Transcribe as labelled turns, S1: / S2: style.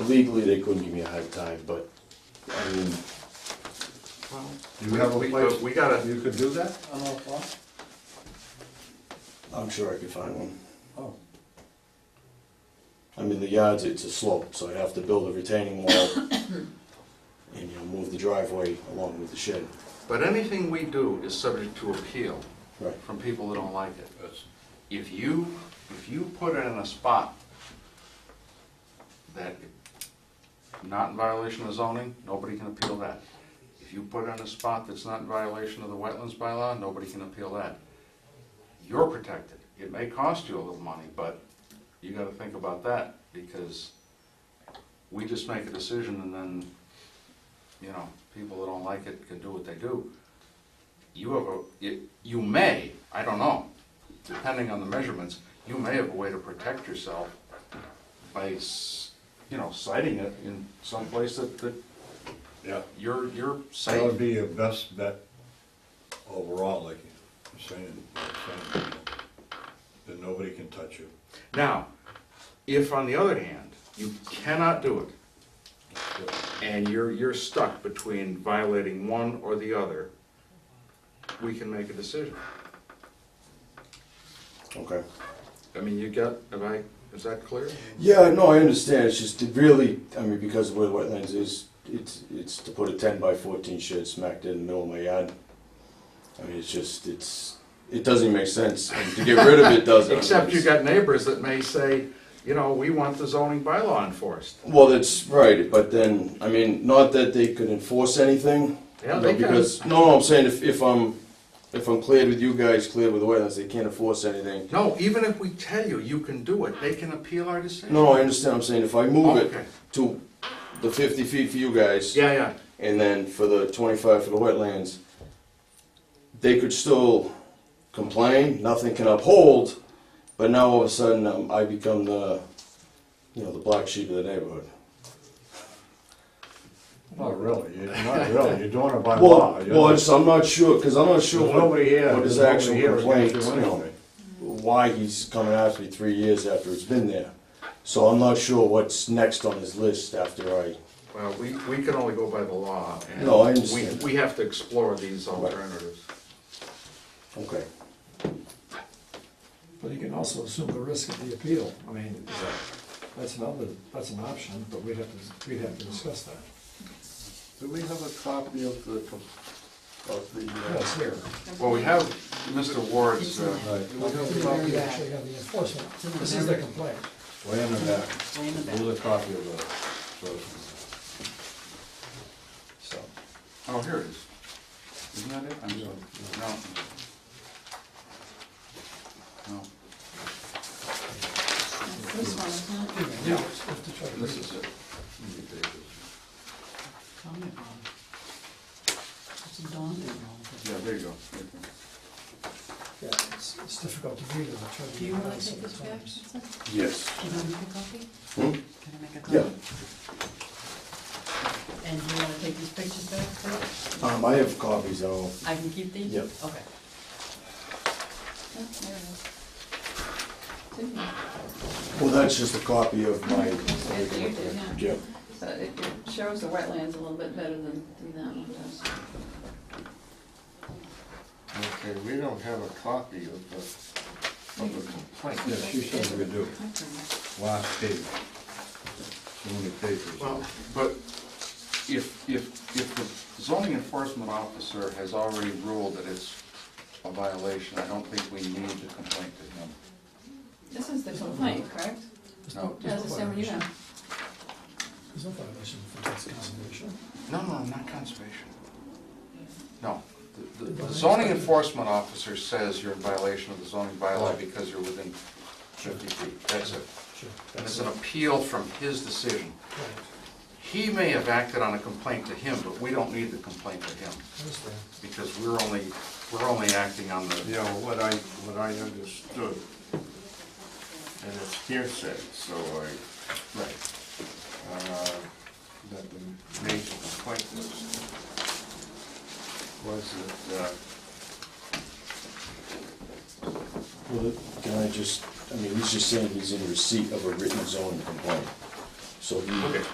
S1: Legally, they couldn't give me a hard time, but, I mean,
S2: You have a
S3: We-
S2: place,
S3: We gotta,
S2: you could do that?
S1: I'm sure I could find one.
S2: Oh.
S1: I mean, the yards, it's a slope, so I'd have to build a retaining wall and, you know, move the driveway along with the shed.
S3: but anything we do is subject to appeal
S1: Right.
S3: from people that don't like it. If you, if you put it in a spot that not in violation of zoning, nobody can appeal that. If you put it in a spot that's not in violation of the wetlands bylaw, nobody can appeal that. You're protected. It may cost you a little money, but you gotta think about that, because we just make a decision and then, you know, people that don't like it can do what they do. You have a, you- you may, I don't know, depending on the measurements, you may have a way to protect yourself by, s- you know, citing it in some place that, that
S1: Yeah.
S3: you're, you're
S2: That would
S3: safe.
S2: be your best bet overall, like you're saying, like saying, that nobody can touch you.
S3: Now, if on the other hand, you cannot do it, and you're, you're stuck between violating one or the other, we can make a decision.
S1: Okay.
S3: I mean, you got, am I, is that clear?
S1: Yeah, no, I understand, it's just it really, I mean, because of where the wetlands is, it's, it's to put a ten by fourteen shed smack dead in the middle of my yard. I mean, it's just, it's, it doesn't even make sense, and to get rid of it doesn't.
S3: Except you got neighbors that may say, you know, we want the zoning bylaw enforced.
S1: Well, that's right, but then, I mean, not that they could enforce anything.
S3: Yeah,
S1: you
S3: they
S1: know,
S3: can.
S1: Because, no, no, I'm saying if, if I'm, if I'm cleared with you guys, cleared with the wetlands, they can't enforce anything.
S3: No, even if we tell you, you can do it, they can appeal our decision.
S1: No, no, I understand, I'm saying if I move
S3: Okay.
S1: it to the fifty feet for you guys.
S3: Yeah, yeah,
S1: And then for the twenty-five for the wetlands, they could still complain, nothing can uphold, but now all of a sudden, um, I become the, you know, the black sheep of the neighborhood.
S2: Not really, you're not really, you're doing it by law.
S1: Well,
S2: You're
S1: well,
S2: not-
S1: it's, I'm not sure, because I'm not sure
S2: There's
S1: what,
S2: nobody here,
S1: what
S2: there's
S1: his
S2: nobody
S1: actual
S2: here
S1: complaint,
S2: against you
S1: you know,
S2: anyway.
S1: why he's coming after me three years after it's been there. So I'm not sure what's next on his list after I,
S3: well, we, we can only go by the law. and
S1: No, I
S3: we-
S1: understand.
S3: We have to explore these alternatives.
S1: okay.
S4: But you can also assume the risk of the appeal. I mean, that's another, that's an option, but we'd have to, we'd have to discuss that.
S2: Do we have a copy of the, com- of the? uh,
S4: That's here.
S3: Well, we have Mr. Ward's, uh,
S2: right,
S4: We actually have the enforcement. This is the complaint.
S2: Way in the back,
S5: Way in the back.
S2: there's a copy of the, so,
S4: So,
S3: oh, here it is. Isn't that it? I'm sorry. No. No.
S5: This one is not even.
S3: Yeah,
S4: we have to try to
S3: this
S4: read
S3: is
S4: it.
S3: it.
S5: Tell me about it. It's a daunting role.
S3: Yeah, there you go.
S4: Yeah, it's, it's difficult to read it. I tried to
S5: Do you
S4: read it
S5: want to
S4: out
S5: take this back,
S4: sometimes.
S5: Susan?
S1: Yes.
S5: Can I make a copy?
S1: Hmm?
S5: Can I make a copy?
S1: Yeah.
S5: And do you want to take these pictures back, too?
S1: Um, I have copies, I'll,
S5: I can keep these?
S1: Yep.
S5: Okay. Oh, there it is. It's in there.
S1: well, that's just a copy of my.
S5: Yes, you did,
S1: Yeah.
S5: So it it shows the wetlands a little bit better than than that one does.
S6: Okay, we don't have a copy of the, of the complaint.
S2: yeah, she said we do,
S5: I can-
S2: last page. So many pages.
S3: Well, but if, if, if the zoning enforcement officer has already ruled that it's a violation, I don't think we need the complaint to him.
S5: This is the complaint, correct?
S4: There's
S3: No.
S4: no-
S5: Yeah,
S4: there's
S5: it's
S4: no
S5: the same one you
S4: violation.
S5: have.
S4: There's no violation for tax conservation.
S3: No, no, not conservation. No, the the- the zoning enforcement officer says you're in violation of the zoning bylaw because you're within fifty feet, that's it.
S4: Sure.
S3: And it's an
S4: That's
S3: appeal from his decision.
S4: right.
S3: He may have acted on a complaint to him, but we don't need the complaint to him,
S4: I understand.
S3: because we're only, we're only acting on the,
S6: Yeah, what I, what I understood, and it's hearsay, so I,
S3: right.
S6: uh, that the major complaint was, was that, uh,
S1: Well, can I just, I mean, he's just saying he's in receipt of a written zoning complaint.
S7: so he
S1: Okay.